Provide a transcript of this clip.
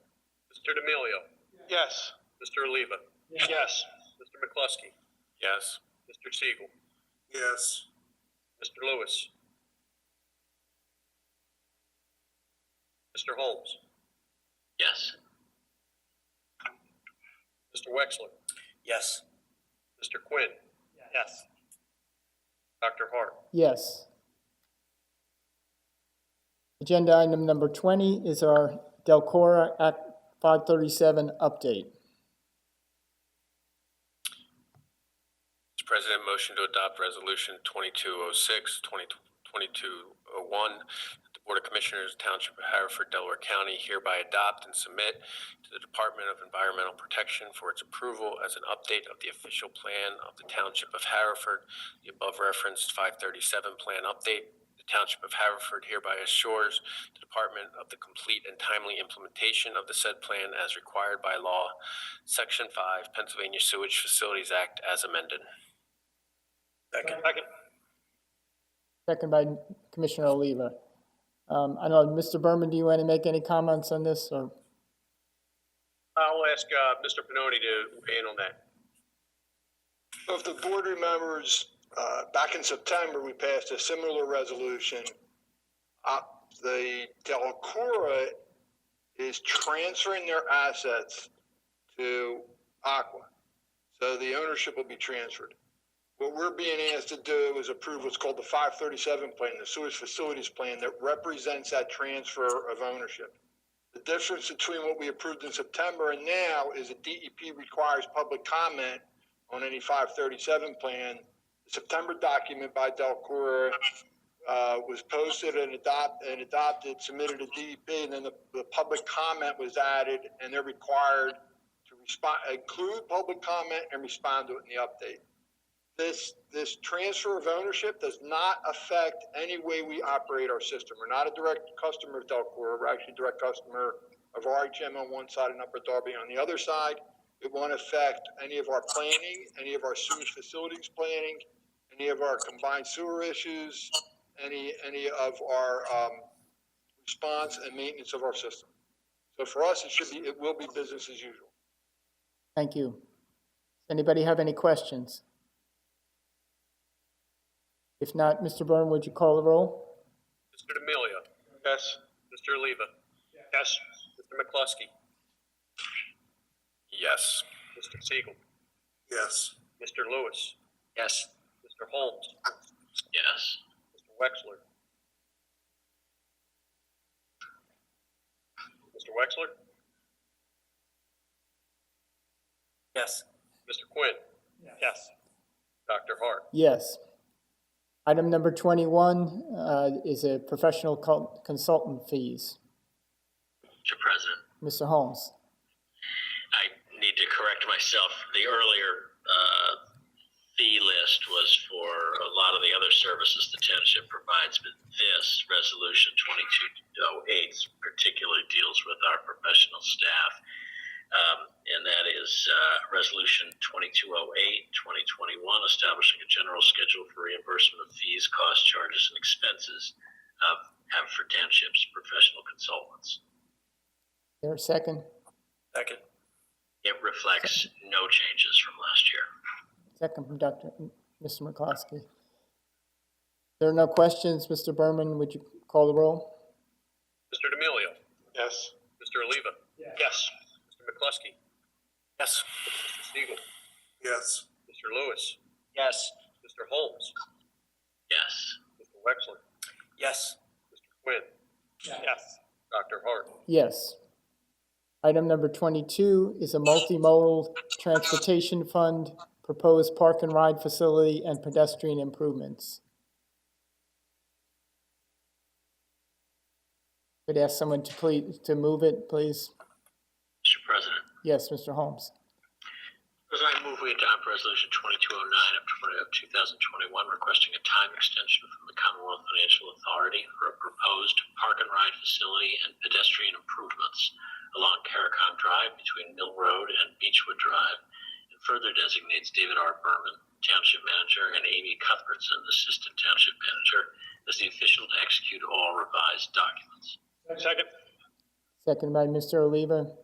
Mr. D'Amelio. Yes. Mr. Oliva. Yes. Mr. McCluskey. Yes. Mr. Siegel. Yes. Mr. Lewis. Mr. Holmes. Yes. Mr. Wexler. Yes. Mr. Quinn. Yes. Dr. Hart. Yes. Agenda item number 20 is our Delcora Act 537 update. Mr. President, motion to adopt Resolution 2206, 2201, that the Board of Commissioners, Township of Hereford, Delaware County hereby adopt and submit to the Department of Environmental Protection for its approval as an update of the official plan of the Township of Hereford, the above referenced 537 plan update. The Township of Hereford hereby assures the Department of the complete and timely implementation of the said plan as required by law, Section 5 Pennsylvania Sewage Facilities Act as amended. Second. Second by Commissioner Oliva. Um, I don't know, Mr. Berman, do you want to make any comments on this, or? I'll ask, uh, Mr. Pinoni to weigh in on that. So if the board remembers, uh, back in September, we passed a similar resolution. Uh, the Delcora is transferring their assets to Aqua. So the ownership will be transferred. What we're being asked to do is approve what's called the five thirty-seven plan, the sewage facilities plan that represents that transfer of ownership. The difference between what we approved in September and now is that DEP requires public comment on any five thirty-seven plan. The September document by Delcora, uh, was posted and adopt, and adopted, submitted to DEP, and then the, the public comment was added, and they're required to respond, include public comment and respond to it in the update. This, this transfer of ownership does not affect any way we operate our system. We're not a direct customer of Delcora, we're actually a direct customer of RHM on one side and Upper Darby on the other side. It won't affect any of our planning, any of our sewage facilities planning, any of our combined sewer issues, any, any of our, um, response and maintenance of our system. So for us, it should be, it will be business as usual. Thank you. Anybody have any questions? If not, Mr. Berman, would you call the roll? Mr. D'Amelio. Yes. Mr. Oliva. Yes. Mr. McCluskey. Yes. Mr. Siegel. Yes. Mr. Lewis. Yes. Mr. Holmes. Yes. Mr. Wexler. Mr. Wexler. Yes. Mr. Quinn. Yes. Dr. Hart. Yes. Item number 21 uh, is a professional cult- consultant fees. Mr. President, Mr. Holmes? I need to correct myself. The earlier uh, fee list was for a lot of the other services the township provides, but this resolution 2208 particularly deals with our professional staff. Um, and that is uh, Resolution 2208 2021, establishing a general schedule for reimbursement of fees, costs, charges, and expenses of Haverford Township's professional consultants. There a second? Second. It reflects no changes from last year. Second from Dr. Mr. McCloskey. There are no questions. Mr. Berman, would you call the roll? Mr. D'Amelio. Yes. Mr. Oliva. Yes. Mr. McCluskey. Yes. Mr. Siegel. Yes. Mr. Lewis. Yes. Mr. Holmes. Yes. Mr. Wexler. Yes. Mr. Quinn. Yes. Dr. Hart. Yes. Item number 22 is a multimodal transportation fund, proposed park and ride facility, and pedestrian improvements. Could ask someone to please, to move it, please? Mr. President, Yes, Mr. Holmes. as I move, we adopt Resolution 2209 of 20 of 2021, requesting a time extension from the Commonwealth Financial Authority for a proposed park and ride facility and pedestrian improvements along Caricon Drive between Mill Road and Beechwood Drive, and further designates David R. Berman, Township Manager, and Amy Cuthbertson, Assistant Township Manager, as the official to execute all revised documents. Second. Second by Mr. Oliva.